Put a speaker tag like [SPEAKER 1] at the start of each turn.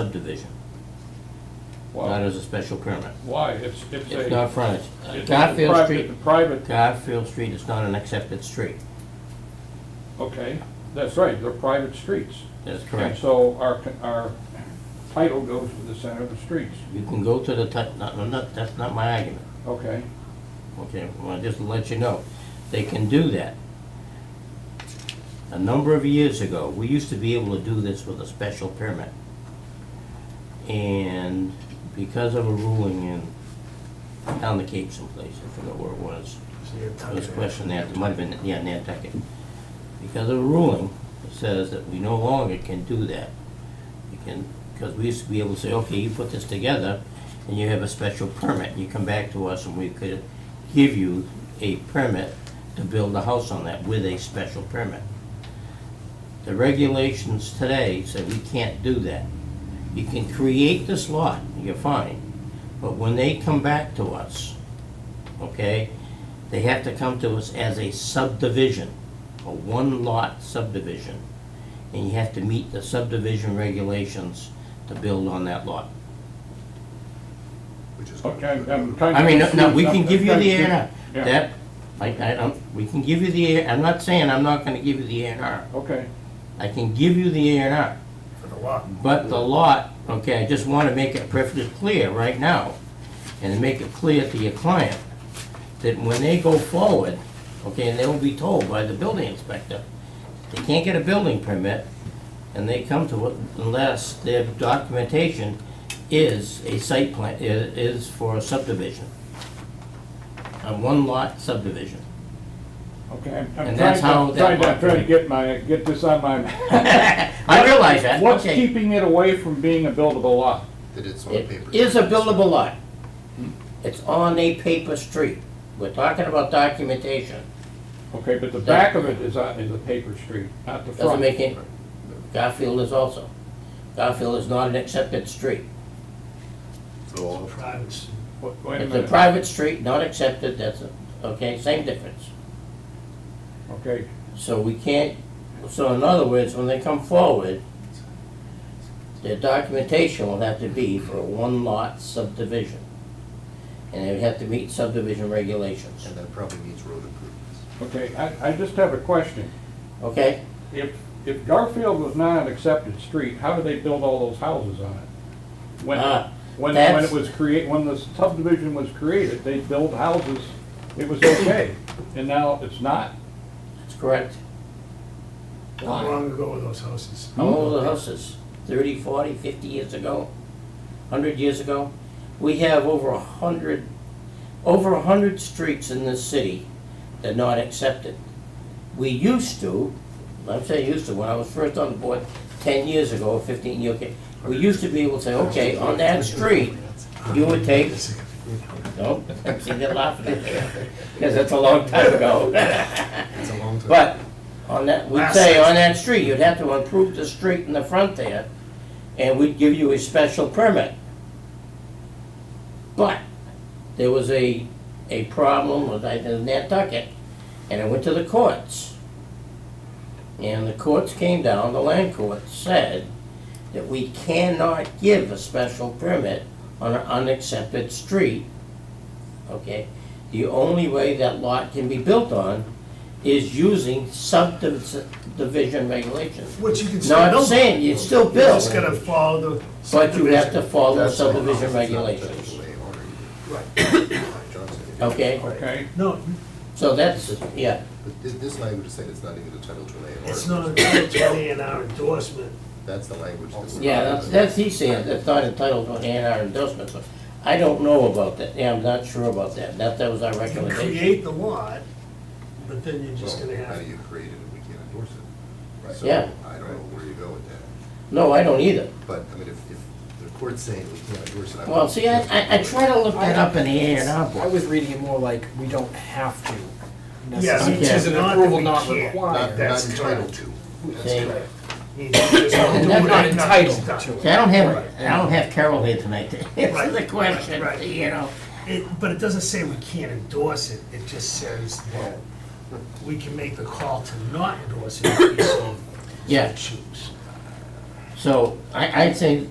[SPEAKER 1] subdivision, not
[SPEAKER 2] Well,
[SPEAKER 1] as a special permit.
[SPEAKER 2] why? It's, it's
[SPEAKER 1] It's
[SPEAKER 2] a.
[SPEAKER 1] not frontage. Uh,
[SPEAKER 2] it's a
[SPEAKER 1] Garfield
[SPEAKER 2] private-
[SPEAKER 1] Street,
[SPEAKER 2] Private,
[SPEAKER 1] Garfield Street is not an accepted street.
[SPEAKER 2] okay, that's right, they're private streets.
[SPEAKER 1] That's
[SPEAKER 2] And
[SPEAKER 1] correct.
[SPEAKER 2] so our, our title goes to the center of the streets,
[SPEAKER 1] You can go to the, ti- not, not, that's not my argument,
[SPEAKER 2] okay?
[SPEAKER 1] okay? Well, just to let you know, they can do that. A number of years ago, we used to be able to do this with a special permit. And because of a ruling in, down the Cape someplace, I forgot where it was, I was questioning that, it might have been, yeah, Nantucket. Because of a ruling, that says that we no longer can do that. You can, because we used to be able to say, okay, you put this together, and you have a special permit, you come back to us and we could give you a permit to build a house on that with a special permit. The regulations today say we can't do that. You can create this lot, you're fine, but when they come back to us, okay, they have to come to us as a subdivision, a one-lot subdivision. And you have to meet the subdivision regulations to build on that lot.
[SPEAKER 3] Which is.
[SPEAKER 2] Okay, I'm- I'm kind of.
[SPEAKER 1] I mean, no, no, we
[SPEAKER 2] confused.
[SPEAKER 1] can
[SPEAKER 2] I'm-
[SPEAKER 1] give you
[SPEAKER 2] I'm
[SPEAKER 1] the A
[SPEAKER 2] confused.
[SPEAKER 1] and R.
[SPEAKER 2] Yeah.
[SPEAKER 1] That, like, I don't, we can give you the, A- I'm not saying I'm not gonna give you the A and R.
[SPEAKER 2] Okay,
[SPEAKER 1] I can give you the A and R.
[SPEAKER 3] For the lot.
[SPEAKER 1] But the lot, okay, I just want to make it perfectly clear right now, and make it clear to your client, that when they go forward, okay, and they'll be told by the building inspector, they can't get a building permit, and they come to it unless their documentation is a site plan, i- is for a subdivision. A one-lot subdivision.
[SPEAKER 2] okay. I'm- I'm
[SPEAKER 1] And that's
[SPEAKER 2] trying
[SPEAKER 1] how
[SPEAKER 2] to-
[SPEAKER 1] that
[SPEAKER 2] Trying to,
[SPEAKER 1] worked.
[SPEAKER 2] trying to get my, get this on my.
[SPEAKER 1] I realize that,
[SPEAKER 2] What's
[SPEAKER 1] okay.
[SPEAKER 2] keeping it away from being a buildable lot?
[SPEAKER 3] That it's on
[SPEAKER 1] It
[SPEAKER 3] paper.
[SPEAKER 1] is a buildable lot. It's on a paper street. We're talking about documentation.
[SPEAKER 2] Okay, but the back of it is, a- is a paper street, not the front.
[SPEAKER 1] Doesn't make any, Garfield is also. Garfield is not an accepted street.
[SPEAKER 3] So,
[SPEAKER 2] Wait wait a
[SPEAKER 1] It's a
[SPEAKER 2] minute,
[SPEAKER 1] private street, not accepted, that's, a- okay, same difference.
[SPEAKER 2] okay,
[SPEAKER 1] So we can't, so in other words, when they come forward, their documentation will have to be for a one-lot subdivision. And they would have to meet subdivision regulations,
[SPEAKER 3] And that probably means road improvements.
[SPEAKER 2] okay, I, I just have a question.
[SPEAKER 1] okay?
[SPEAKER 2] If, if Garfield was not an accepted street, how did they build all those houses on it? When,
[SPEAKER 1] Ah,
[SPEAKER 2] when, when
[SPEAKER 1] that's-
[SPEAKER 2] it was create, when the subdivision was created, they built houses, it was okay, and now it's not?
[SPEAKER 1] That's correct.
[SPEAKER 4] How long ago were those houses?
[SPEAKER 1] How old are the houses? 30, 40, 50 years ago? 100 years ago? We have over a 100, over a 100 streets in this city that are not accepted. We used to, I'm saying used to, when I was first on the board 10 years ago, 15 years ago, we used to be able to say, okay, on that street, you would take, no, see, they're laughing at me, because that's a long time ago.
[SPEAKER 3] It's a long time.
[SPEAKER 1] But on that, we'd say on that street, you'd have to improve the street in the front there, and we'd give you a special permit. But there was a, a problem with, I think, Nantucket, and it went to the courts. And the courts came down, the land court said that we cannot give a special permit on an unaccepted street. Okay? The only way that lot can be built on is using subdivision regulations.
[SPEAKER 4] Which you can still build.
[SPEAKER 1] Not saying you still
[SPEAKER 4] You just
[SPEAKER 1] build,
[SPEAKER 4] gotta follow the
[SPEAKER 1] but you have to
[SPEAKER 4] subdivision.
[SPEAKER 1] follow
[SPEAKER 3] That's not-
[SPEAKER 1] subdivision
[SPEAKER 3] it's not technically
[SPEAKER 1] regulations.
[SPEAKER 3] a order.
[SPEAKER 4] Right.
[SPEAKER 3] John said it.
[SPEAKER 1] Okay,
[SPEAKER 2] Okay,
[SPEAKER 4] No,
[SPEAKER 1] so that's, yeah,
[SPEAKER 3] But this, this language is saying it's not even a title to an A and R.
[SPEAKER 4] it's not entitled to an A and R endorsement.
[SPEAKER 3] That's the language. that's-
[SPEAKER 1] yeah, that's, that's he saying, that's not entitled to an A and R endorsement, but I don't know about that, yeah, I'm not sure about that, that, that was our
[SPEAKER 4] You
[SPEAKER 1] recommendation.
[SPEAKER 4] create the lot, but then you're just
[SPEAKER 3] Well,
[SPEAKER 4] gonna
[SPEAKER 3] How
[SPEAKER 4] have,
[SPEAKER 3] do you create it if we can't endorse it? Right. So,
[SPEAKER 1] Yeah.
[SPEAKER 3] I don't know where you go with that,
[SPEAKER 1] No, I don't either.
[SPEAKER 3] but, I mean, if, if the court's saying we can't endorse it, I.
[SPEAKER 1] Well, see, I, I, I try to look that up in the A and R
[SPEAKER 5] I
[SPEAKER 1] book.
[SPEAKER 5] was reading it more like, we don't have to
[SPEAKER 4] yes,
[SPEAKER 5] necessarily.
[SPEAKER 4] which is an
[SPEAKER 6] Not that
[SPEAKER 4] approval
[SPEAKER 6] we
[SPEAKER 4] not
[SPEAKER 6] can't.
[SPEAKER 3] Not,
[SPEAKER 4] required.
[SPEAKER 3] not
[SPEAKER 4] That's
[SPEAKER 3] entitled
[SPEAKER 4] correct.
[SPEAKER 3] to.
[SPEAKER 1] See,
[SPEAKER 4] You just don't
[SPEAKER 1] We're
[SPEAKER 4] do it,
[SPEAKER 1] not
[SPEAKER 4] nothing's
[SPEAKER 6] entitled
[SPEAKER 4] done.
[SPEAKER 1] see, I don't have, I don't have Carol here tonight to answer
[SPEAKER 4] Right.
[SPEAKER 1] the question,
[SPEAKER 4] Right.
[SPEAKER 1] you know.
[SPEAKER 4] It, but it doesn't say we can't endorse it, it just says that we can make the call to not endorse it if we so
[SPEAKER 1] Yeah.
[SPEAKER 4] choose.
[SPEAKER 1] So I, I'd say